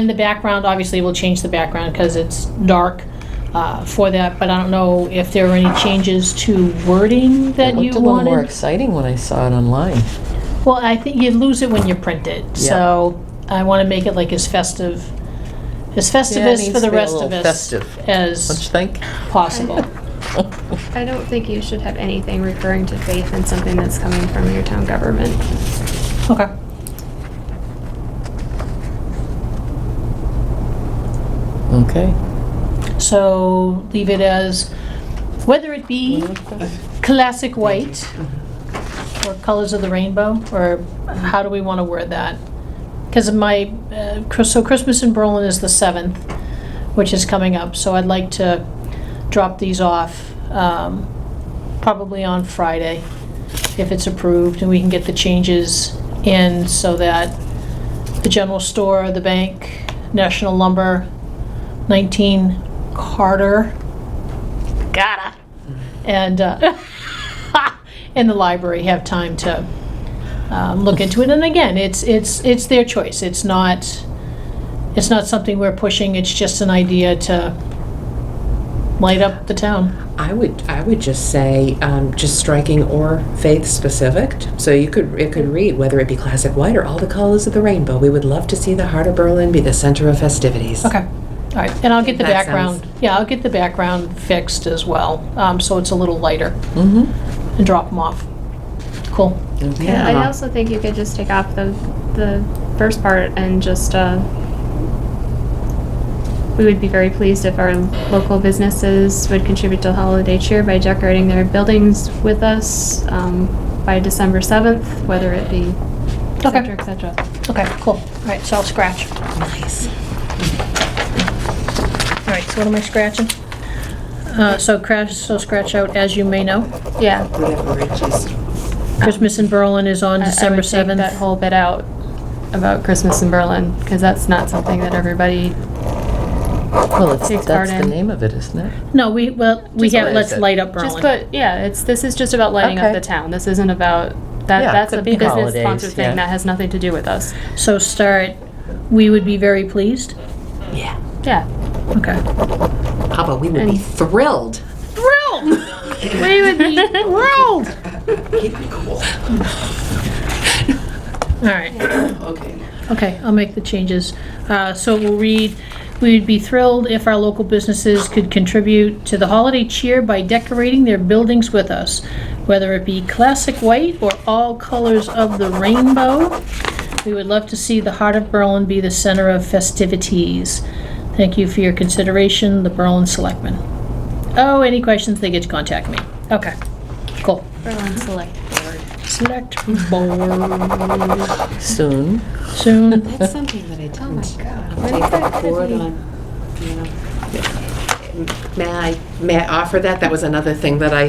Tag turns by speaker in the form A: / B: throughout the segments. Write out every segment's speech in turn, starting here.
A: And the background, obviously, we'll change the background because it's dark uh, for that, but I don't know if there are any changes to wording that
B: It looked
A: you
B: a little more
A: wanted.
B: exciting when I saw it online.
A: Well, I think you lose it when you print it,
B: Yeah.
A: so I want to make it like as festive, as festive
B: Yeah, it
A: as for
B: needs
A: the
B: to be a
A: rest of
B: little
A: us
B: festive. Don't you
A: as
B: think?
A: possible.
C: I don't think you should have anything referring to faith in something that's coming from your town government.
A: Okay.
B: Okay.
A: So leave it as, whether it be classic white or colors of the rainbow, or how do we want to word that? Because my, uh, Chris- so Christmas in Berlin is the 7th, which is coming up, so I'd like to drop these off um, probably on Friday, if it's approved, and we can get the changes in so that the general store, the bank, National Lumber, 19 Carter. Gotta. And, uh, and the library have time to um, look into it. And again, it's, it's, it's their choice. It's not, it's not something we're pushing. It's just an idea to light up the town.
D: I would, I would just say, um, just striking or faith specific. So you could, it could read whether it be classic white or all the colors of the rainbow. We would love to see the heart of Berlin be the center of festivities.
A: Okay. All right. And I'll get the
D: That
A: background, yeah, I'll get the background fixed as well. Um, so it's a little lighter
B: Mm-hmm.
A: and drop them off. Cool.
C: I also think you could just take off the, the first part and just, uh, we would be very pleased if our local businesses would contribute to holiday cheer by decorating their buildings with us, um, by December 7th, whether it be, et
A: Okay.
C: cetera, et cetera.
A: Okay, cool. All right, so I'll scratch.
D: Nice.
A: All right, so what am I scratching? Uh, So crash, so scratch out, as you may know.
C: Yeah.
D: Whatever Richie's.
A: Christmas in Berlin is on
C: I- I would
A: December
C: take
A: 7th.
C: That whole bit out about Christmas in Berlin, because that's not something that everybody,
B: Well, it's,
C: Takes
B: that's
C: part
B: the
C: in.
B: name of it, isn't it?
A: No, we, well, we
B: Just
A: have,
B: what
A: let's
B: is it?
A: light up
C: just
A: Berlin.
C: put, yeah, it's, this is just about lighting up
B: Okay.
C: the town. This isn't about, that,
B: Yeah,
C: that's
B: could
C: a
B: be
C: business
B: holidays,
C: sponsored
B: yeah.
C: thing. That has nothing to do with us.
A: So start, we would be very pleased.
D: Yeah.
C: Yeah.
A: Okay.
D: Papa, we would be
C: And-
D: thrilled.
A: Thrilled! We would be thrilled! All right,
E: Okay.
A: okay, I'll make the changes. Uh, So we'll read, "We'd be thrilled if our local businesses could contribute to the holiday cheer by decorating their buildings with us, whether it be classic white or all colors of the rainbow. We would love to see the heart of Berlin be the center of festivities. Thank you for your consideration, the Berlin Selectmen." Oh, any questions, they get to contact me. Okay, cool.
C: Berlin Select Board.
A: Select board
B: Soon.
A: soon.
D: That's something that I didn't.
C: When's
D: Take
C: that gonna
D: that forward
C: be?
D: on, you know. May I, may I offer that? That was another thing that I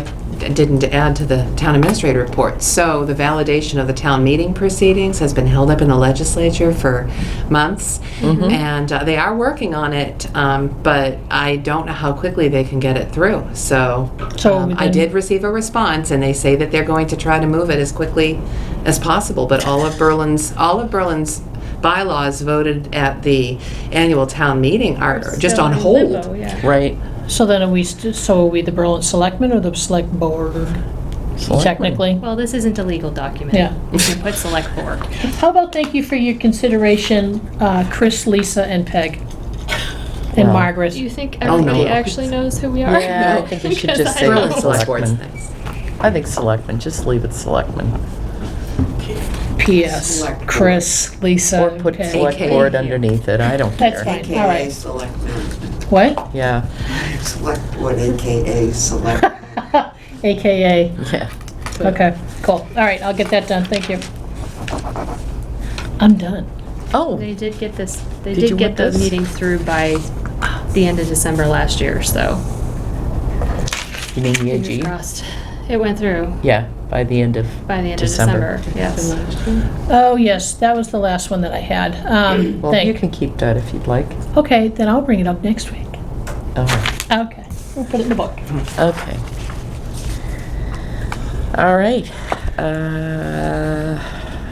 D: didn't add to the town administrator report. So the validation of the town meeting proceedings has been held up in the legislature for months. And uh, they are working on it, um, but I don't know how quickly they can get it through. So
A: So
D: um, I
A: then-
D: did receive a response and they say that they're going to try to move it as quickly as possible. But all of Berlin's, all of Berlin's bylaws voted at the annual town meeting are just
C: Still
D: on
C: in
D: hold.
C: limbo, oh, yeah.
B: Right.
A: So then are we, st- so are we the Berlin Selectmen or the Select Board
B: Selectmen.
A: technically?
C: Well, this isn't a legal document.
A: Yeah.
C: You can put Select Board.
A: How about thank you for your consideration, uh, Chris, Lisa, and Peg? And
B: Wow.
A: Margaret?
C: Do you think
D: Oh, no.
C: everybody actually knows who we are?
B: Yeah, I think you should
C: Because
B: just
C: I
B: say
C: don't.
D: Berlin Select Board's
B: Selectmen.
D: nice.
B: I think selectmen, just leave it selectmen.
A: P.S.
E: Select Board.
A: Chris, Lisa,
B: Or
A: and
B: put
A: Peg.
B: select
D: AKA.
B: board underneath it, I don't
A: That's
B: care.
A: fine, all
E: AKA
A: right.
E: Selectmen.
A: What?
B: Yeah,
E: Select Board, AKA Select.
A: AKA,
B: yeah.
A: okay, cool. All right, I'll get that done, thank you. I'm done.
B: Oh,
C: They did get this, they
B: Did you
C: did
B: want
C: get the
B: this?
C: meeting through by the end of December last year, so.
B: you mean year
C: fingers
B: E G?
C: crossed. It went through
B: Yeah, by the end of,
C: by the end
B: December.
C: of December, yes.
A: Oh, yes, that was the last one that I had. Um,
B: well, you
A: thank-
B: can keep that if you'd like.
A: Okay, then I'll bring it up next week.
B: All right.
A: Okay, we'll put it in the book.
B: Okay. All right. Uh,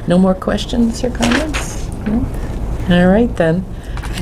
B: No more questions or comments? No? All right, then.